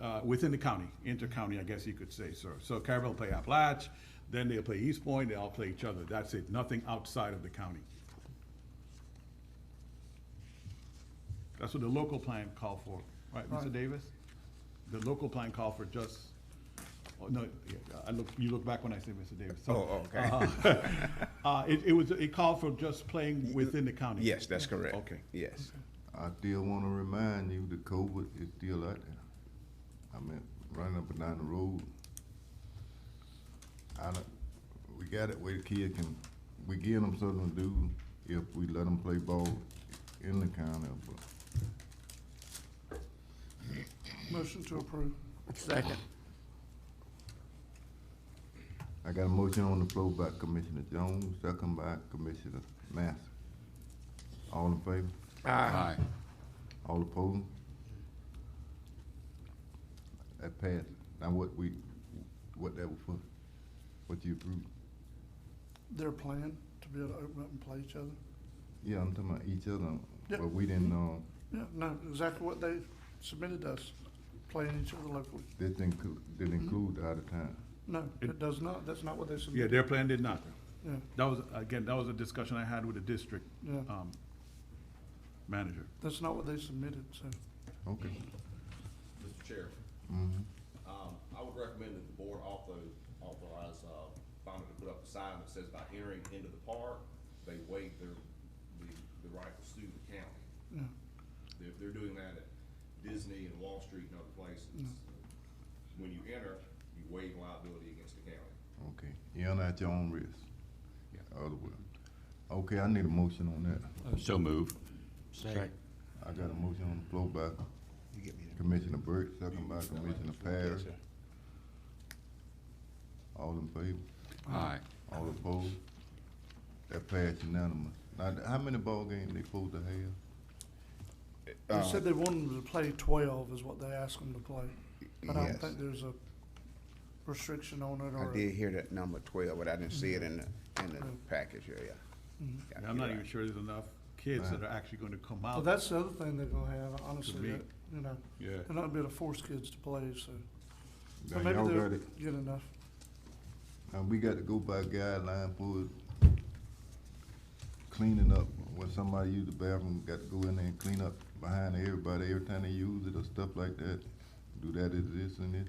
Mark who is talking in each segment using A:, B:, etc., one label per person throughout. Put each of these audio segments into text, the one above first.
A: uh, within the county, inter-county, I guess you could say, sir. So Carver will play Appalach, then they'll play East Point, they all play each other. That's it, nothing outside of the county. That's what the local plan called for, right, Mr. Davis? The local plan called for just, oh, no, yeah, I look, you look back when I say Mr. Davis. So,
B: Oh, okay.
A: Uh, it, it was, it called for just playing within the county.
B: Yes, that's correct.
A: Okay.
B: Yes.
C: I still wanna remind you that COVID is still out there. I mean, running up and down the road. I don't, we got it where the kid can, we give them something to do if we let them play ball in the county, but
D: Motion to approve.
E: Second.
C: I got a motion on the floor by Commissioner Jones, second by Commissioner Master. All in favor?
B: Aye.
C: All opposed? That passed. Now what we, what that was for, what you approved?
D: Their plan to be able to open up and play each other.
C: Yeah, I'm talking about each other,
D: Yep.
C: but we didn't, um,
D: Yeah, no, exactly what they submitted us, playing each other locally.
C: this didn't, clu- didn't include the other time.
D: No, it does not. That's not what they
A: Yeah,
D: submitted.
A: their plan did not.
D: Yeah,
A: That was, again, that was a discussion I had with the district,
D: Yeah.
A: um, manager.
D: that's not what they submitted, so.
C: Okay.
F: Mr. Chair,
C: Mhm.
F: um, I would recommend that the board also authorize, uh, Fonda to put up a sign that says by entering into the park, they waive their, the, the right to sue the county.
D: Yeah.
F: They're, they're doing that at Disney and Wall Street and other places. When you enter, you waive liability against the county.
C: Okay, you're not at your own risk. Other way. Okay, I need a motion on that.
G: So move.
E: Second.
C: I got a motion on the floor by Commissioner Burke, second by Commissioner Parrish. All in favor?
G: Aye.
C: All opposed? That passed unanimous. Now, how many ball games they supposed to have?
B: Uh,
D: They said they wanted them to play twelve is what they asked them to play. But I don't
B: Yes.
D: think there's a restriction on it
B: I
D: or. a-
B: did hear that number twelve, but I didn't see it in the, in the package, yeah, yeah.
A: And
B: Yeah.
A: I'm not
B: you're
A: even
B: right.
A: sure there's enough kids that are actually gonna come
D: mm-hmm. Well,
A: out.
D: that's the other thing they're gonna have, honestly,
A: me.
D: that, you know,
A: Yeah.
D: they're not gonna be able to force kids to play, so.
C: Now,
D: But maybe
C: y'all
D: they'll
C: got it.
D: get enough.
C: And we got to go by guideline for cleaning up. When somebody use the bathroom, got to go in there and clean up behind everybody every time they use it or stuff like that. Do that is this and this.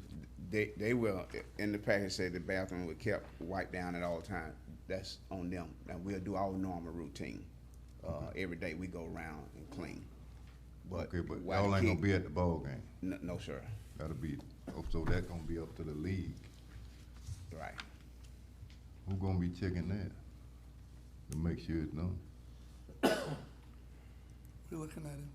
B: They, they will, in the package say the bathroom was kept wiped down at all time. That's on them. Now, we'll do our normal routine. Uh, every day we go around and clean. But
C: Okay, but
B: while
C: y'all
B: the
C: ain't gonna
B: kid-
C: be at the ball game.
B: No, no, sir.
C: That'll be, oh, so that gonna be up to the league.
B: Right.
C: Who gonna be checking that? To make sure it's done.
D: We're looking at him.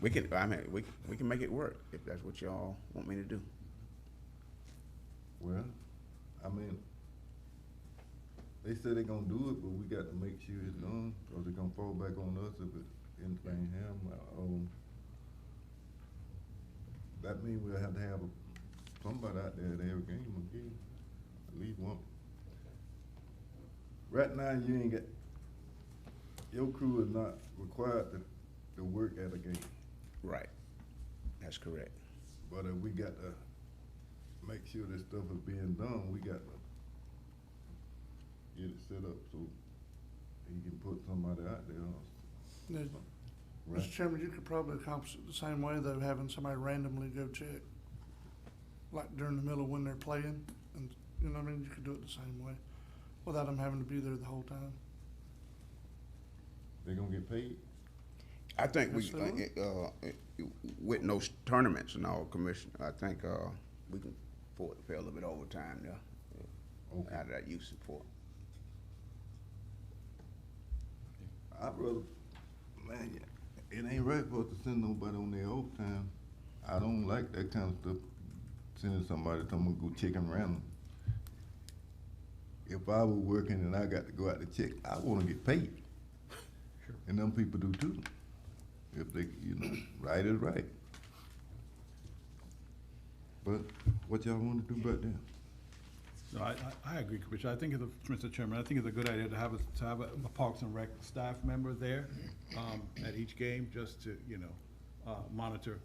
B: We can, I mean, we, we can make it work if that's what y'all want me to do.
C: Well, I mean, they said they gonna do it, but we got to make sure it's done, or they gonna fall back on us if it, anything happen, um. That mean we'll have to have a- somebody out there at every game again, at least one. Right now, you ain't got, your crew is not required to, to work at a game.
B: Right. That's correct.
C: But if we got to make sure this stuff is being done, we got to get it set up so he can put somebody out there,
D: Yeah,
C: right?
D: Mr. Chairman, you could probably accomplish it the same way, though, having somebody randomly go check. Like during the middle when they're playing, and, you know what I mean, you could do it the same way, without them having to be there the whole time.
C: They gonna get paid?
B: I think we,
D: Absolutely.
B: uh, uh, with no tournaments and all, Commissioner, I think, uh, we can afford to pay a little bit overtime there.
C: Okay.
B: Out of that youth support.
C: I'd rather, man, it ain't right for us to send nobody on their off time. I don't like that kind of stuff, sending somebody, to go check them random. If I were working and I got to go out to check, I wanna get paid. And them people do too. If they, you know, right is right. But what y'all wanna do about that?
A: No, I, I, I agree, Commissioner. I think it's a, Mr. Chairman, I think it's a good idea to have a, to have a a Parks and Rec staff member there, um, at each game, just to, you know, uh, monitor,